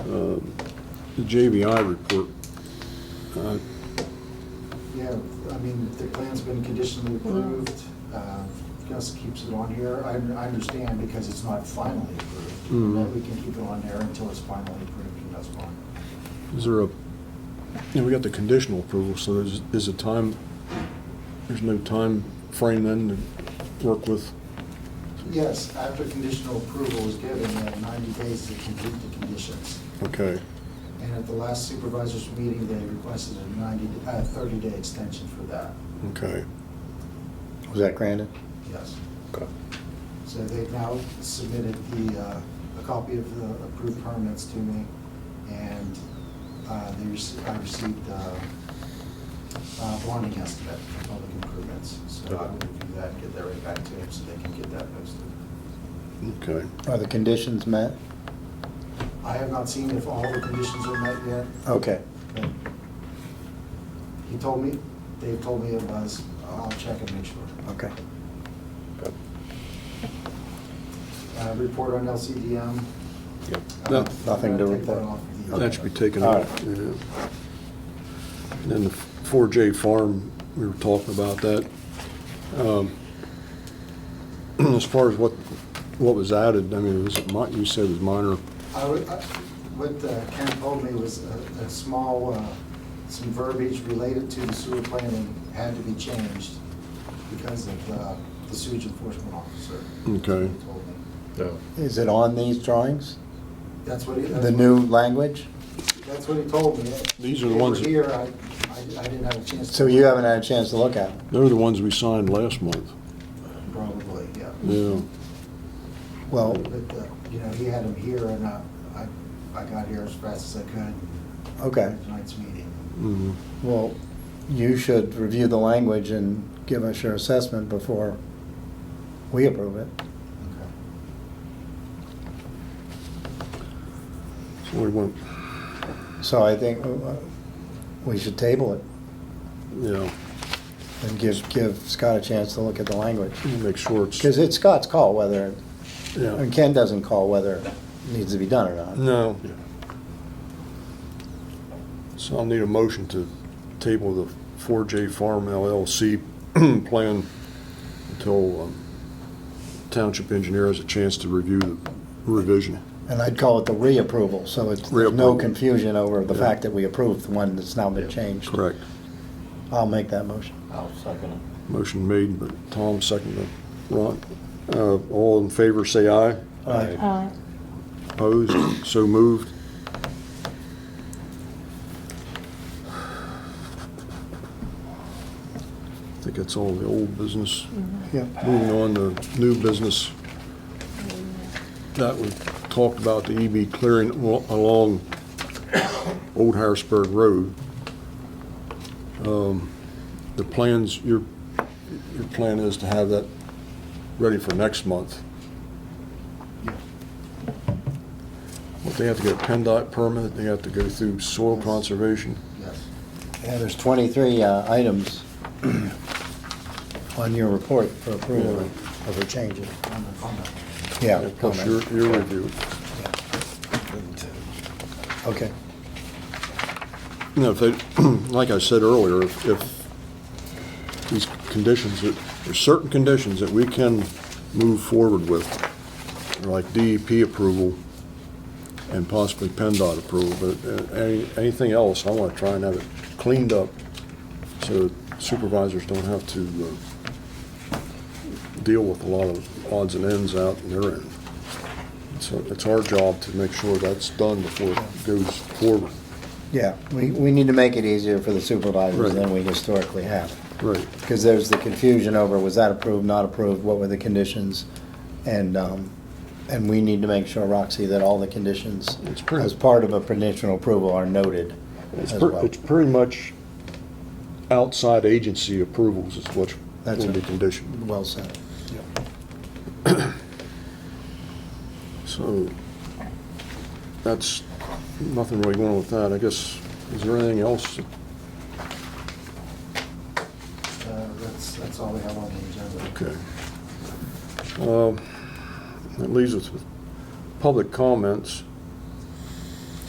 um, the JVI report. Uh, Yeah, I mean, the plan's been conditionally approved, uh, Gus keeps it on here, I, I understand because it's not finally approved. Mhm. But we can keep it on there until it's finally approved and that's fine. Is there a, yeah, we got the conditional approval, so is, is a time, there's no time frame then to work with? Yes, after conditional approval is given, you have ninety days to complete the conditions. Okay, And at the last supervisors meeting, they requested a ninety, uh, thirty-day extension for that, okay. Was that granted? yes. Okay. So they've now submitted the, uh, a copy of the approved permits to me, and uh, they received, I received uh, uh, bonding estimate for public improvements, so I will review that and get that right back to him so they can get that posted. Okay. Are the conditions met? I have not seen if all the conditions are met yet, Okay. but he told me, Dave told me it was, I'll check and make sure. Okay. Uh, Report on LCDM. Yep. Uh, That- Nothing to I'll take that report. off the- That should be taken All out. right. yeah. And Then the 4J farm, we were talking about that. Um, As far as what, what was added, I mean, was it, mi- you said it was minor, I would- I- What uh, Ken told me was a- a small, uh, some verbiage related to the sewer planning had to be changed because of uh, the sewage enforcement officer. Okay. He told me. Is it on these drawings? That's what he. that's The what- new language? That's what he told me. These are the They were ones that- Here, I, I I didn't have a chance. to- So you haven't had a chance to look at it? they're the ones we signed last month. Probably, yeah. Mm-hmm. Yeah, Well, But, uh, you know, he had them here and uh, I, I got here as fast as I could okay. for tonight's meeting. mhm. Well, you should review the language and give us your assessment before we approve it. Okay. so we went, So I think uh, we should table it yeah, and give, give Scott a chance to look at the language. we'll make sure it's, Because it's Scott's call whether, yeah. and Ken doesn't call whether it needs to be done or not. No. So I'll need a motion to table the 4J Farm LLC plan until um, Township Engineer has a chance to review the revision. And I'd call it the reapproval, so it's, there's no Reapproval. confusion over the Yeah. fact that we approved the one that's now been changed. Correct. I'll make that motion. I'll second it. Motion made, but Tom seconded. Ron, uh, all in favor, say aye. Aye. Aye. Opposed? So moved. I think that's all the old business. Yep. Moving on to new business. That we talked about the EB clearing al- along Old Harrisburg Road. Um, The plans, your, your plan is to have that ready for next month. Well, they have to get a PennDOT permit, they have to go through soil conservation. Yes. Yeah, there's 23 uh, items on your report for approval of the changes. On the comment. Yeah. Plus your, comment. your review. uh, Okay. You know, if they, like I said earlier, if if these conditions, that- there's certain conditions that we can move forward with, like DEP approval and possibly PennDOT approval, but uh, any- anything else, I want to try and have it cleaned up so supervisors don't have to uh, deal with a lot of odds and ends out in their end. So it's our job to make sure that's done before it goes forward. Yeah, we, we need to make it easier for the supervisors Right. than we historically have. Right. Because there's the confusion over, was that approved, not approved, what were the conditions? And, um, and we need to make sure, Roxy, that all the conditions It's pretty- as part of a conditional approval are noted It's, as per- well. it's pretty much outside agency approvals is what That's will be right. conditioned. Well said. So that's, nothing really going on with that. I guess, is there anything else? Uh, That's, that's all we have on the agenda. Okay. Um, That leaves us with public comments.